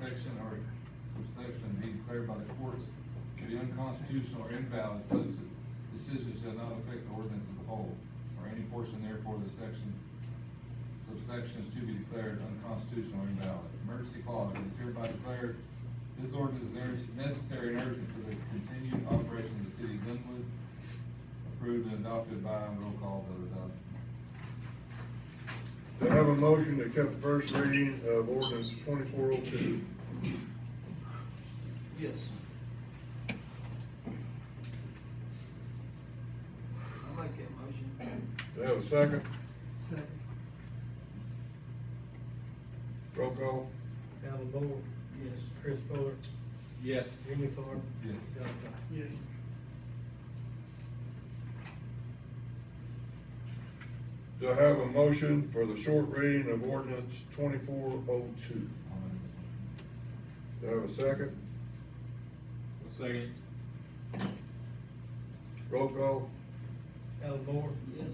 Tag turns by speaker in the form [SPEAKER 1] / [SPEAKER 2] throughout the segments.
[SPEAKER 1] section or subsection be declared by the courts to be unconstitutional or invalid, such decision shall not affect the ordinance as a whole, or any portion therefore of the section, subsection is to be declared unconstitutional or invalid. Emergency clause, it is hereby declared, this ordinance is ner- necessary and urgent for the continued operation of the city of Glenwood, approved and adopted by roll call vote adopted.
[SPEAKER 2] Do I have a motion to accept the first reading of ordinance twenty-four oh two?
[SPEAKER 3] Yes. I like that motion.
[SPEAKER 2] Do I have a second?
[SPEAKER 4] Second.
[SPEAKER 2] Roll call.
[SPEAKER 4] Alan Moore.
[SPEAKER 3] Yes.
[SPEAKER 4] Chris Fuller.
[SPEAKER 3] Yes.
[SPEAKER 4] Jimmy Clark.
[SPEAKER 1] Yes.
[SPEAKER 4] John Cox. Yes.
[SPEAKER 2] Do I have a motion for the short reading of ordinance twenty-four oh two?
[SPEAKER 1] I'll make this motion.
[SPEAKER 2] Do I have a second?
[SPEAKER 3] Second.
[SPEAKER 2] Roll call.
[SPEAKER 4] Alan Moore.
[SPEAKER 3] Yes.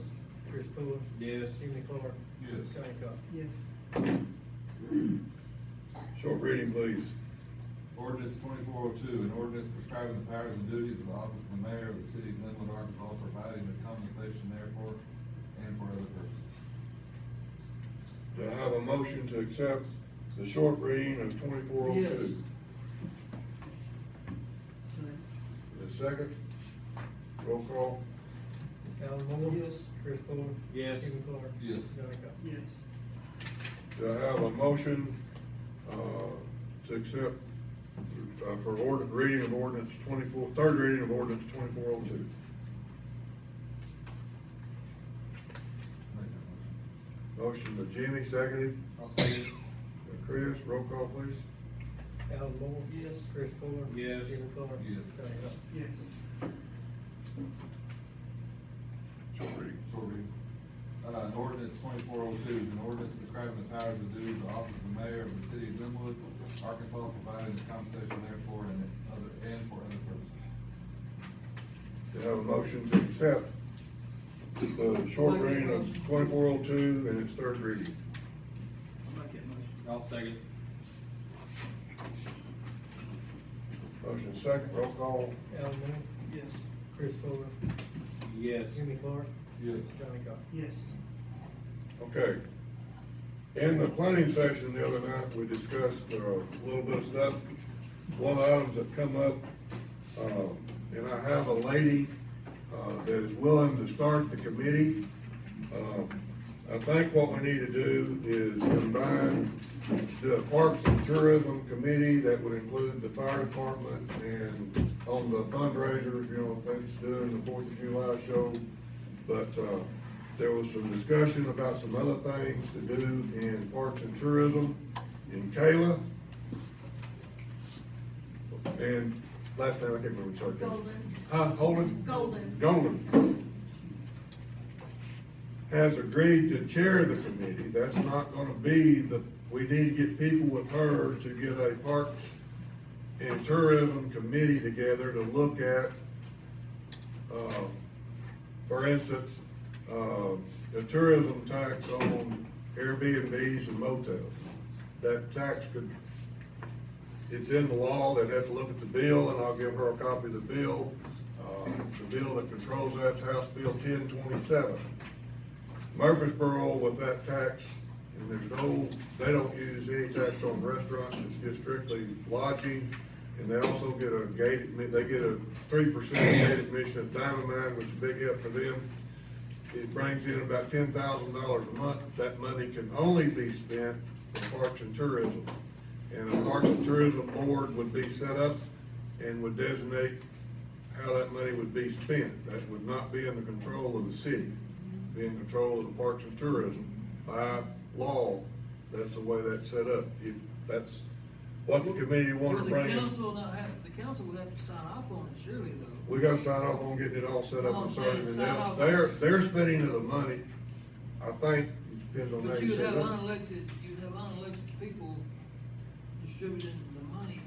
[SPEAKER 4] Chris Fuller.
[SPEAKER 3] Yes.
[SPEAKER 4] Jimmy Clark.
[SPEAKER 1] Yes.
[SPEAKER 4] Johnny Cox.
[SPEAKER 5] Yes,
[SPEAKER 2] Short reading, please.
[SPEAKER 1] Ordinance twenty-four oh two, an ordinance prescribing the powers and duties of the office of the mayor of the city of Glenwood, Arkansas, providing the compensation therefore and for other purposes.
[SPEAKER 2] Do I have a motion to accept the short reading of twenty-four oh two?
[SPEAKER 5] second,
[SPEAKER 2] A second? Roll call.
[SPEAKER 4] Alan Moore.
[SPEAKER 3] Yes.
[SPEAKER 4] Chris Fuller.
[SPEAKER 3] Yes.
[SPEAKER 4] Jimmy Clark.
[SPEAKER 1] Yes.
[SPEAKER 4] Johnny Cox.
[SPEAKER 5] yes,
[SPEAKER 2] Do I have a motion, uh, to accept, uh, for ordinance, reading of ordinance twenty-four, third reading of ordinance twenty-four oh two?
[SPEAKER 1] Make that motion.
[SPEAKER 2] Motion by Jimmy, seconded
[SPEAKER 1] I'll second.
[SPEAKER 2] by Chris. Roll call, please.
[SPEAKER 4] Alan Moore.
[SPEAKER 3] Yes.
[SPEAKER 4] Chris Fuller.
[SPEAKER 3] Yes.
[SPEAKER 4] Jimmy Clark.
[SPEAKER 1] Yes.
[SPEAKER 4] Johnny Cox.
[SPEAKER 5] yes,
[SPEAKER 2] Short reading.
[SPEAKER 1] Short reading. Uh, an ordinance twenty-four oh two, an ordinance prescribing the powers and duties of the office of the mayor of the city of Glenwood, Arkansas, providing the compensation therefore and other, and for other purposes.
[SPEAKER 2] Do I have a motion to accept the short
[SPEAKER 3] I'll make
[SPEAKER 2] reading
[SPEAKER 3] that
[SPEAKER 2] of
[SPEAKER 3] motion.
[SPEAKER 2] twenty-four oh two and its third reading?
[SPEAKER 3] I like that motion.
[SPEAKER 6] I'll second.
[SPEAKER 2] Motion second, roll call.
[SPEAKER 4] Alan Moore.
[SPEAKER 3] Yes.
[SPEAKER 4] Chris Fuller.
[SPEAKER 6] Yes.
[SPEAKER 4] Jimmy Clark.
[SPEAKER 1] Yes.
[SPEAKER 4] Johnny Cox.
[SPEAKER 5] yes,
[SPEAKER 2] Okay. In the planning session the other night, we discussed uh, a little bit of stuff. One of the items that come up, uh, and I have a lady uh, that is willing to start the committee. Uh, I think what we need to do is combine the Parks and Tourism Committee, that would include the fire department, and on the fundraiser, you know, things doing the Fourth of July show. But, uh, there was some discussion about some other things to do in Parks and Tourism in Kayla. And last name, I can't remember, sorry.
[SPEAKER 7] Golden.
[SPEAKER 2] Huh, Holden?
[SPEAKER 7] Golden.
[SPEAKER 2] Golden has agreed to chair the committee. That's not gonna be the, we need to get people with her to get a Parks and Tourism Committee together to look at, uh, for instance, uh, the tourism tax on Airbnbs and motels. That tax could, it's in the law, they'd have to look at the bill, and I'll give her a copy of the bill. Uh, The bill that controls that's House Bill ten twenty-seven. Murfreesboro with that tax, and there's no, they don't use any tax on restaurants, it's just strictly lodging. And they also get a gate, admi- they get a three percent gate admission at Diamond Mine, which is a big help for them. It brings in about ten thousand dollars a month. That money can only be spent for parks and tourism. And a Parks and Tourism Board would be set up and would designate how that money would be spent. That would not be in the control of the city, be in control of the Parks and Tourism. By law, that's the way that's set up. If that's what the committee wanted to
[SPEAKER 3] Well,
[SPEAKER 2] bring
[SPEAKER 3] the
[SPEAKER 2] in.
[SPEAKER 3] council not have, the council would have to sign off on it surely though.
[SPEAKER 2] We gotta sign off on getting it all set up and starting it
[SPEAKER 3] Sign
[SPEAKER 2] out.
[SPEAKER 3] off.
[SPEAKER 2] Their, their spending of the money, I think, depends on how
[SPEAKER 3] But
[SPEAKER 2] you
[SPEAKER 3] you'd
[SPEAKER 2] set
[SPEAKER 3] have
[SPEAKER 2] it up.
[SPEAKER 3] unelected, you'd have unelected people distributing the money,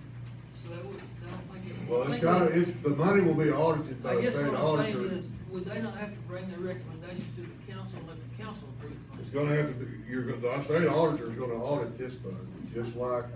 [SPEAKER 3] so that would, I don't think it.
[SPEAKER 2] Well,
[SPEAKER 3] I
[SPEAKER 2] it's
[SPEAKER 3] think
[SPEAKER 2] gotta,
[SPEAKER 3] we-
[SPEAKER 2] it's, the money will be audited by
[SPEAKER 3] I
[SPEAKER 2] the
[SPEAKER 3] guess
[SPEAKER 2] state
[SPEAKER 3] what I'm saying
[SPEAKER 2] auditor.
[SPEAKER 3] is, would they not have to bring their recommendations to the council, and let the council approve? it?
[SPEAKER 2] It's gonna have to be, you're, gonna- the state auditor's gonna audit this thing, just like